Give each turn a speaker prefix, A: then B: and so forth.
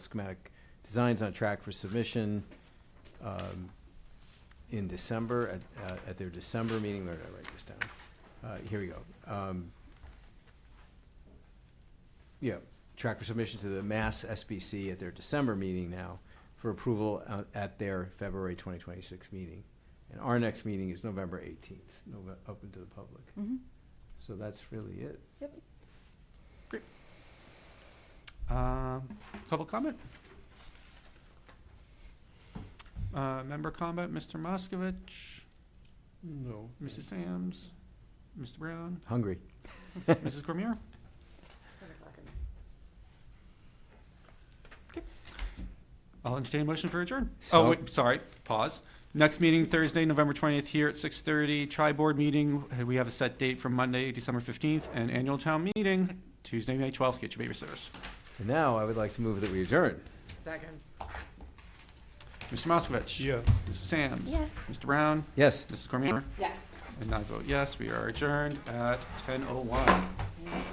A: schematic designs on track for submission um, in December, at- uh, at, at their December meeting, where did I write this down? Uh, Here we go. Um, Yeah, track for submission to the Mass SBC at their December meeting now for approval uh, at their February 2026 meeting. And our next meeting is November 18th, Nove- open to the public.
B: Mhm.
A: So that's really it.
C: Um, Public comment? Uh, Member comment, Mr. Moskovich,
D: No.
C: Mrs. Sams, Mr. Brown,
A: Hungry.
C: Mrs. Cormier? Okay. I'll entertain a motion for adjourn.
A: So-
C: Oh, wait, sorry, pause. Next meeting Thursday, November 20th, here at 6:30. Tri-Board meeting, uh, we have a set date for Monday, December 15th, and annual town meeting, Tuesday, May 12th. Get your babysitters.
A: And now I would like to move that we adjourn.
E: Second.
C: Mr. Moskovich?
D: Yeah.
C: Mrs. Sams?
B: Yes.
C: Mr. Brown?
A: Yes.
C: Mrs. Cormier?
E: Yes.
C: oh And I vote yes, we are adjourned at 10:01.